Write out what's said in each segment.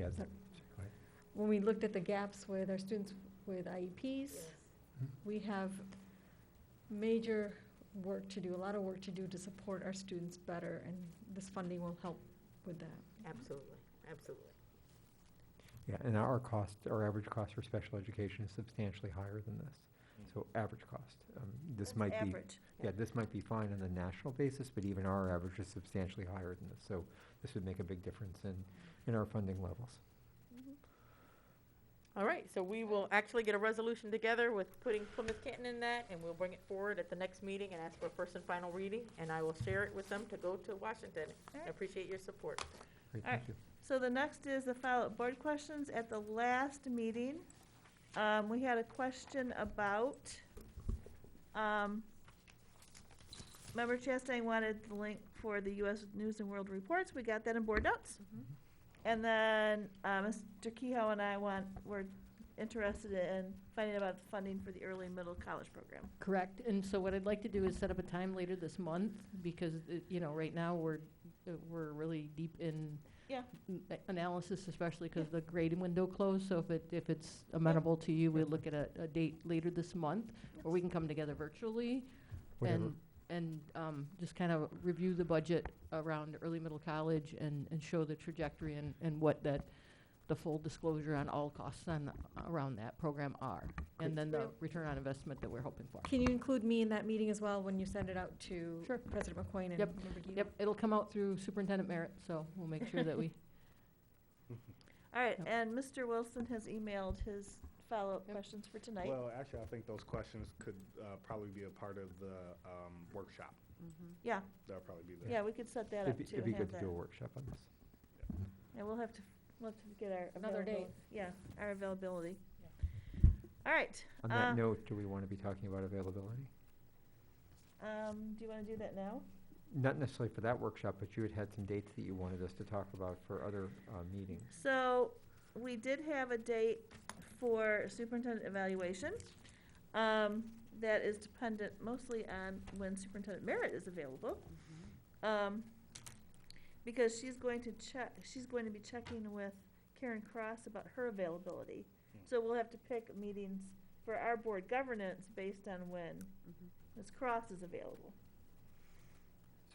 was that, when we looked at the gaps with our students with IEPs, we have major work to do, a lot of work to do to support our students better, and this funding will help with that. Absolutely, absolutely. Yeah, and our cost, our average cost for special education is substantially higher than this. So average cost, um, this might be, yeah, this might be fine on the national basis, but even our average is substantially higher than this. So this would make a big difference in, in our funding levels. All right, so we will actually get a resolution together with putting Plymouth Canton in that, and we'll bring it forward at the next meeting and ask for first and final reading, and I will share it with them to go to Washington. All I right. appreciate your support. Great, All right. thank you. So the next is the follow-up board questions. At the last meeting, um, we had a question about, um, Member Chastain wanted the link for the US News and World Reports. We got that in board notes. Mm-hmm. Mhm. And then, uh, Mr. Kehoe and I want, were interested in finding out about the funding for the early and middle college program. Correct, and so what I'd like to do is set up a time later this month, because, uh, you know, right now, we're, uh, we're really deep in Yeah. n- a- analysis, especially because the grading window closed, so if it, if it's amenable to you, we'll look at a, a date later this month, or we can come together virtually, Whatever, and, and um, just kind of review the budget around early middle college and, and show the trajectory and, and what that, the full disclosure on all costs on, around that program are, Great. and then the Yep. return on investment that we're hoping for. Can you include me in that meeting as well when you send it out to Sure. President McQueen and Yep, Member Guido? Yep, it'll come out through superintendent merit, so we'll make sure that we, All right, Yep. and Mr. Wilson has emailed his follow-up Yep. questions for tonight. Well, actually, I think those questions could uh, probably be a part of the um, workshop. Yeah, That'll probably be yeah, there. we could set that it'd up be, too. it'd be and have good to that. do a workshop on this. Yeah, we'll have to, we'll have to get our Another availability. date. Yeah, our availability. All right. On uh, that note, do we want to be talking about availability? Um, do you want to do that now? Not necessarily for that workshop, but you had had some dates that you wanted us to talk about for other, uh, meetings. So, we did have a date for superintendent evaluation. Um, that is dependent mostly on when superintendent merit is available. Um, because she's going to check, she's going to be checking with Karen Cross about her availability. So we'll have to pick meetings for our board governance based on when Ms. Cross is available.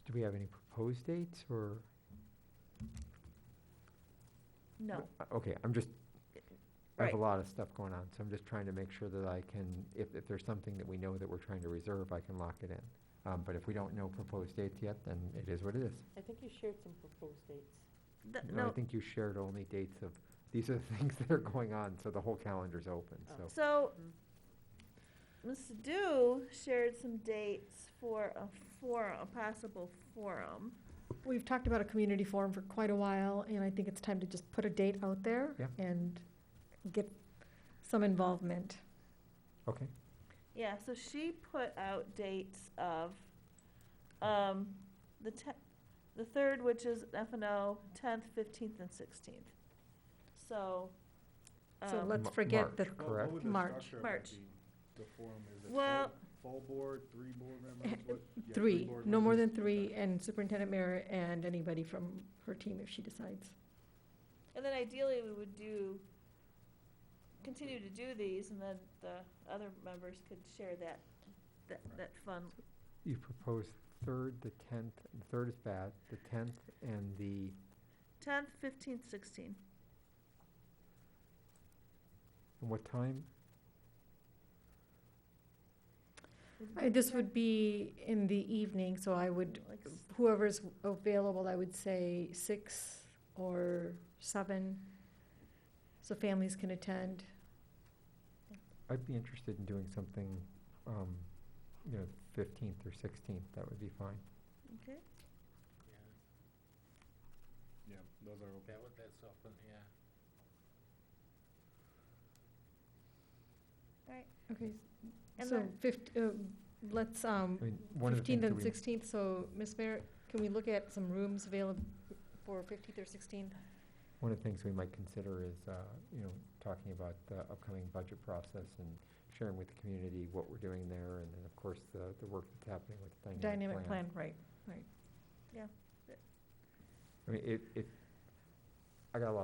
Do we have any proposed dates or? No, Uh, Okay, I'm just, I have a Right. lot of stuff going on, so I'm just trying to make sure that I can, if, if there's something that we know that we're trying to reserve, I can lock it in. Um, but if we don't know proposed dates yet, then it is what it is. I think you shared some proposed dates. Th- No, I Uh, no. think you shared only dates of, these are the things that are going on, so the whole calendar's open, Oh. so. So, Ms. Dew shared some dates for a forum, a possible forum. We've talked about a community forum for quite a while, and I think it's time to just put a date out there Yeah. and get some involvement. Oh. Okay, Yeah, so she put out dates of, um, the te- the third, which is F and O, tenth, fifteenth, and sixteenth. So, So um, let's Ma- forget the, Well, what Correct. would the March. structure of that March. be? The forum, is full- Well- full board, three board members? three, no more than three, and superintendent mayor and anybody from her team if she decides. and then ideally, we would do, continue to do these, and then the other members could share that, that, that fun. you proposed third, the tenth, the third is bad, the tenth and the, Tenth, fifteenth, sixteenth. and what time? I- This would be in the evening, so I would, Like s- whoever's available, I would say six or seven, so families can attend. I'd be interested in doing something, um, you know, fifteenth or sixteenth, that would be fine. Okay, Yeah, those are open. That would, that's open, yeah. Okay, And so then- fift, uh, let's, um, I mean, one of the fifteenth things that and we. sixteenth, so, Ms. Mayor, can we look at some rooms available for fifteenth or sixteenth? One of the things we might consider is, uh, you know, talking about the upcoming budget process and sharing with the community what we're doing there, and then, of course, the, the work that's happening with the dynamic plan. Dynamic plan, right. I mean, it, it, I got a lot